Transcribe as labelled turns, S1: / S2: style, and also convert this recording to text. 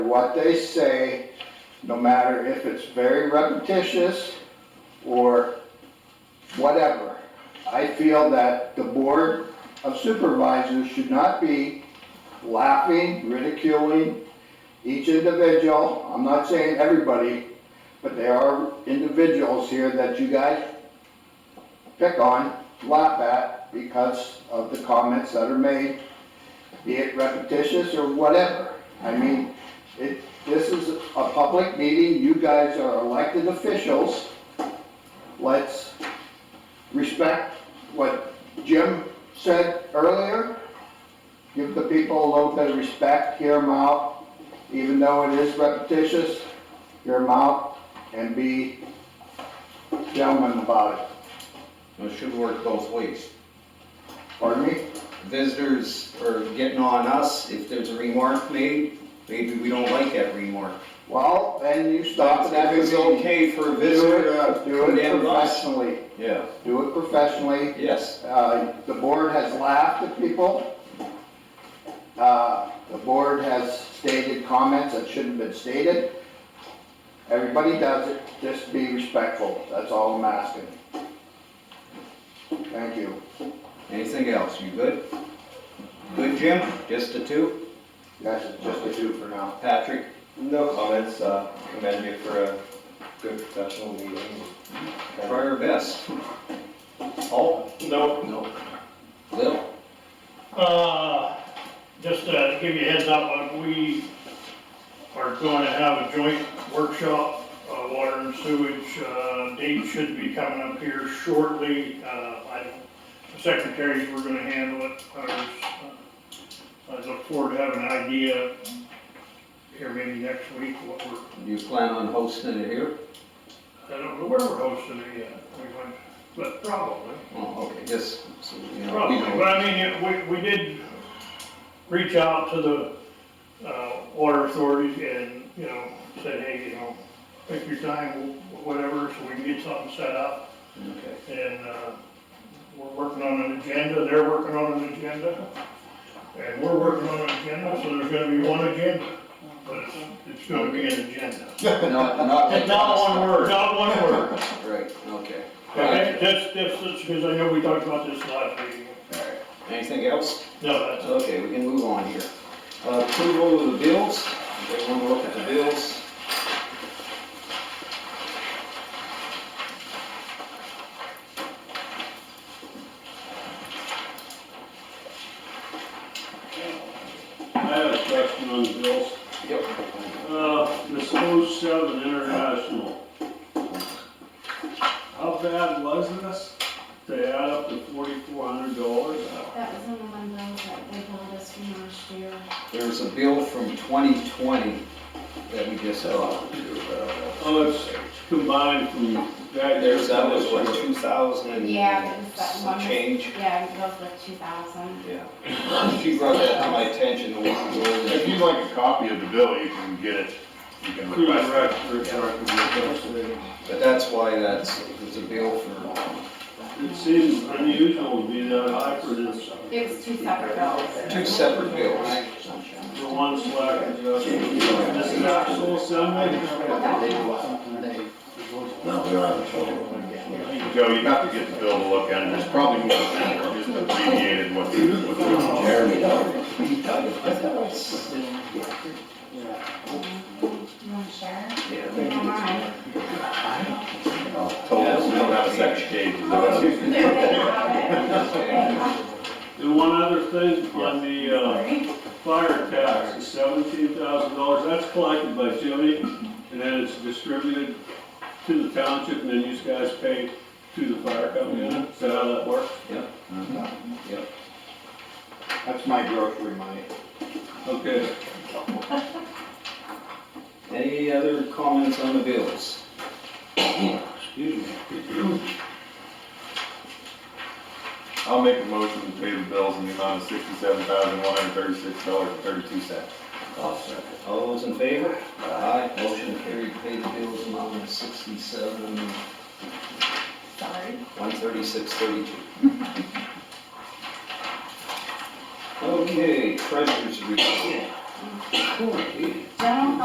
S1: what they say, no matter if it's very repetitious or whatever. I feel that the Board of Supervisors should not be laughing, ridiculing each individual. I'm not saying everybody, but there are individuals here that you guys pick on, laugh at because of the comments that are made, be it repetitious or whatever. I mean, it, this is a public meeting, you guys are elected officials. Let's respect what Jim said earlier. Give the people a little bit of respect, hear them out, even though it is repetitious, hear them out and be gentlemen about it.
S2: It should work both ways.
S1: Pardon me?
S2: Visitors are getting on us, if there's a remark made, maybe we don't like that remark.
S1: Well, then you stop it
S2: If
S1: every
S2: it's
S1: meeting.
S2: okay for a
S1: Do
S2: visitor to
S1: it, do it
S2: condemn us.
S1: professionally,
S2: Yeah,
S1: do it professionally.
S2: yes,
S1: Uh, The board has laughed at people. Uh, The board has stated comments that shouldn't have been stated. Everybody does it, just be respectful, that's all I'm asking. Thank you.
S2: anything else, you good? Good, Jim? Just the two?
S1: That's just the two for now.
S2: Patrick?
S3: No comments, uh, commend you for a good professional meeting.
S2: Try our best. Paul?
S4: No.
S2: No. Lil?
S4: Uh, just to give you a heads up, uh, we are going to have a joint workshop, uh, water and sewage, uh, date should be coming up here shortly. Uh, I, the secretaries, we're gonna handle it, ours. uh, I look forward to having an idea here maybe next week what we're
S2: You plan on hosting it here?
S4: I don't know where we're hosting it yet, we went, but probably,
S2: Oh, okay, just, so, you know, we
S4: probably,
S2: know.
S4: but I mean, it- we, we did reach out to the, uh, water authorities and, you know, said, hey, you know, take your time, wh- whatever, so we can get something set up,
S2: Okay.
S4: and, uh, we're working on an agenda, they're working on an agenda, and we're working on an agenda, so there's gonna be one agenda, but it's, it's gonna be an agenda.
S2: Not, not.
S4: Not one word.
S2: Right, okay.
S4: Okay, that's, that's, that's, because I know we talked about this last meeting.
S2: All right. Anything else?
S4: No, that's,
S2: Okay, we can move on here. Uh, Approval of the bills, everyone will look at the bills.
S5: I have a question on the bills.
S2: Yep.
S5: Uh, this O seven international. How bad was this? They add up to forty-four hundred dollars.
S6: That was the one though that they told us from last year.
S2: There's a bill from 2020 that we just saw.
S5: Oh, it's combined from that.
S2: There's, that was what, 2000 and
S6: Yeah, it was that
S2: some
S6: one.
S2: change?
S6: Yeah, it was like two thousand.
S2: Yeah. She brought that to my attention a while
S7: If
S2: ago.
S7: you'd like a copy of the bill, you can get it, you can
S5: Cruise
S7: request it.
S5: wreck for request.
S2: But that's why that's, there's a bill for
S5: It seems unusual to be that high for this,
S6: It was two separate bills.
S2: two separate bills.
S5: for one slack adjustment. This is actual
S6: Oh,
S5: assembly.
S7: Joe, you have to get the bill to look at, and there's probably more than that, just abbreviated what the, what the.
S6: You wanna share?
S2: Yeah.
S6: Never mind.
S7: Total, we don't have a second page.
S6: They have it. They
S2: Okay.
S6: have it.
S5: And one other thing on the, uh, Fire tax, seventeen thousand dollars, that's collected by Jimmy, and then it's distributed to the township, and then you guys pay to the fire company, is that how that works?
S1: That's my grocery money.
S5: Okay,
S2: Any other comments on the bills? Excuse me.
S7: I'll make a motion to pay the bills in the amount of sixty-seven thousand, one hundred thirty-six dollars and thirty-two cents.
S2: All those in favor? Aye. Motion carried, pay the bills amount of sixty-seven,
S6: Sorry.
S2: one thirty-six, thirty-two. Okay, treasurer's report. Okay.
S6: General